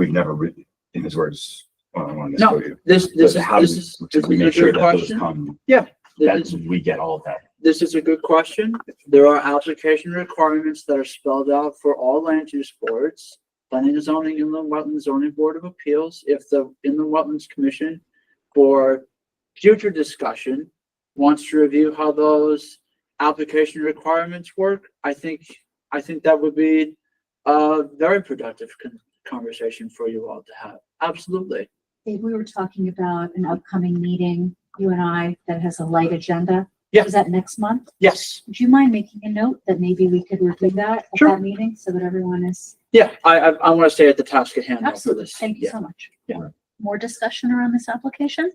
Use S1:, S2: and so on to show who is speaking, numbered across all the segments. S1: We've never written in his words. one on one this
S2: No,
S1: for you.
S2: This, this,
S1: But how
S2: this
S1: do
S2: is,
S1: we-
S2: this
S1: We make
S2: is a
S1: sure
S2: good
S1: that those
S2: question.
S1: come,
S2: This
S1: that
S2: is,
S1: we get all of that.
S2: this is a good question. There are application requirements that are spelled out for all land use boards. Planning and zoning, inland wetlands, zoning board of appeals, if the inland wetlands commission for future discussion wants to review how those application requirements work, I think, I think that would be a very productive con- conversation for you all to have. Absolutely.
S3: Dave, we were talking about an upcoming meeting, you and I, that has a light agenda.
S2: Yeah.
S3: Is that next month?
S2: Yes.
S3: Would you mind making a note that maybe we could review that at
S2: Sure.
S3: that meeting so that everyone is?
S2: Yeah, I, I, I want to stay at the task at hand. after
S3: Absolutely.
S2: this.
S3: Thank you
S2: Yeah.
S3: so much.
S2: Yeah.
S3: More discussion around this application?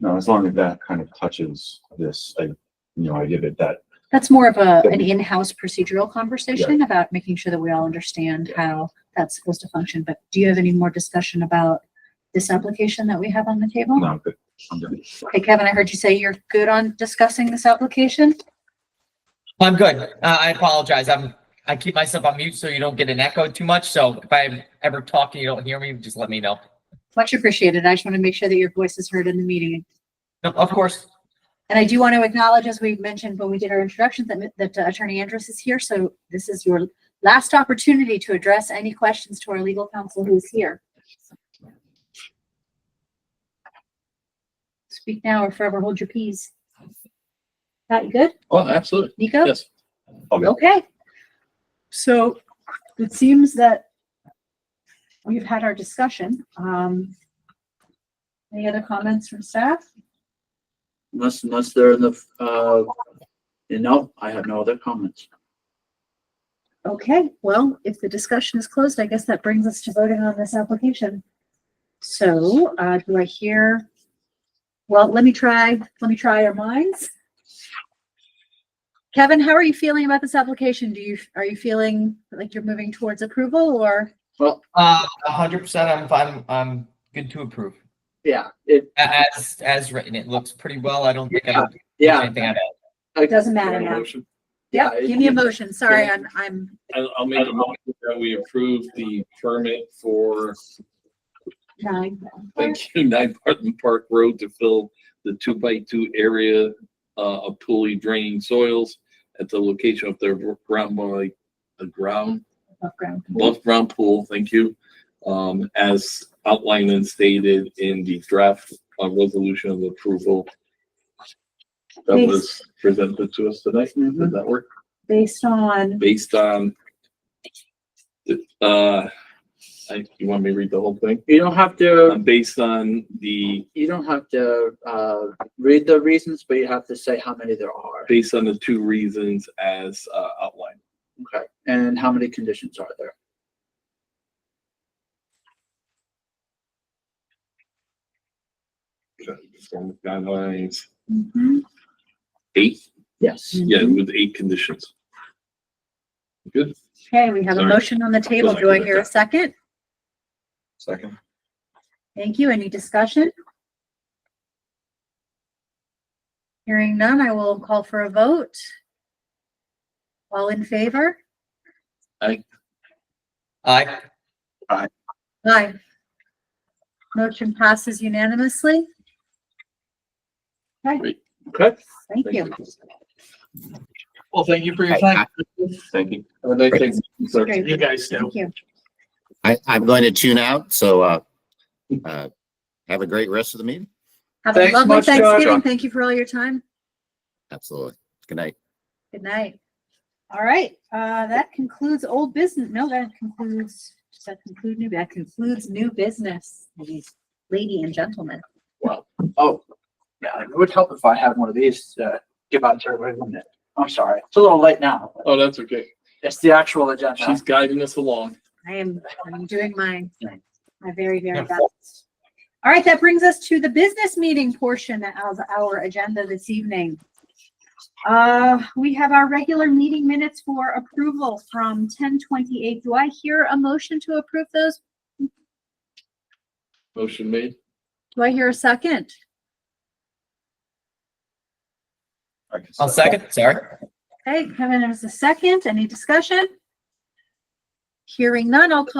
S1: No, as long as that kind of touches this, I, you know, I give it that
S3: That's more of a,
S1: That
S3: an
S1: we-
S3: in-house procedural conversation about making sure that we all understand how that's supposed to function. But do you have any more discussion about this application that we have on the table?
S1: No, I'm good. I'm good.
S3: Okay, Kevin, I heard you say you're good on discussing this application?
S4: I'm good. Uh, I apologize. I'm, I keep myself on mute so you don't get an echo too much. So if I'm ever talking, you don't hear me, just let me know.
S3: Much appreciated. I just want to make sure that your voice is heard in the meeting.
S4: No, Of course,
S3: And I do want to acknowledge, as we mentioned when we did our introduction, that, that uh, Attorney Andrus is here. So this is your last opportunity to address any questions to our legal counsel who is here. Speak now or forever hold your peace. That you good,
S2: Oh, absolutely.
S3: Nico?
S2: Yes.
S1: All good.
S3: Okay. So it seems that we've had our discussion. Um, any other comments from staff?
S2: Unless, unless they're in the, uh, you know, I have no other comments.
S3: Okay, well, if the discussion is closed, I guess that brings us to voting on this application. So, uh, do I hear? Well, let me try, let me try our minds. Kevin, how are you feeling about this application? Do you, are you feeling like you're moving towards approval or?
S2: Well,
S4: uh, a hundred percent, I'm fine. I'm good to approve.
S2: yeah, it,
S4: A- As, as written, it looks pretty well. I don't think. I would-
S2: yeah.
S4: Anything I'd add.
S2: It
S3: doesn't matter now.
S2: Yeah.
S3: Give me a
S2: it-
S3: motion, sorry, I'm, I'm,
S5: I'll, I'll make a motion that we approve the permit for,
S3: nine.
S5: thank you, Nine Barton Park Road to fill the two by two area uh, of poorly draining soils at the location of their ground, by the ground,
S3: Above ground.
S5: above ground pool, thank you. Um, as outlined and stated in the draft uh, resolution of approval that
S3: Thanks.
S5: was presented to us tonight.
S2: Mm-hmm.
S5: Did that work?
S3: Based on,
S5: Based on uh, I, you want me to read the whole thing?
S2: You don't have to,
S5: Um, based on the,
S2: you don't have to, uh, read the reasons, but you have to say how many there are.
S5: based on the two reasons as uh, outlined.
S2: Okay. And how many conditions are there?
S5: Performance Guidelines,
S3: Mhm.
S5: eight,
S2: Yes.
S5: yeah, with eight conditions. Good,
S3: okay, we have a
S5: Sorry.
S3: motion on the table, do I hear a second?
S1: Second.
S3: Thank you. Any discussion? Hearing none, I will call for a vote. All in favor?
S4: I,
S3: Aye. Motion passes unanimously. Okay,
S5: Great.
S2: Okay.
S3: thank you.
S6: Well, thank you for your time.
S5: thank you. Have a nice day. sir.
S3: Great.
S6: You guys do.
S3: Thank you.
S7: I, I'm going to tune out, so, uh, uh, have a great rest of the meeting.
S3: Have a
S2: Thanks
S3: lovely
S2: much, John.
S3: Thanksgiving. Thank you for all your time.
S7: Absolutely. Good night.
S3: Good night. All right, uh, that concludes old business. No, that concludes, does that conclude new, that concludes new business. Lady and gentlemen.
S2: Oh, yeah, it would help if I had one of these to give out to everybody, wouldn't it? I'm sorry. It's a little late now. but
S5: Oh, that's okay.
S2: It's the actual agenda.
S5: She's guiding us along.
S3: I am, I'm doing my, my very, very
S4: Yeah.
S3: best. All right, that brings us to the business meeting portion of our agenda this evening. Uh, we have our regular meeting minutes for approval from ten twenty-eight. Do I hear a motion to approve those?
S5: Motion made.
S3: Do I hear a second?
S1: I can
S4: I'll second, sorry.
S3: Okay, Kevin, there's a second. Any discussion? Hearing none, I'll call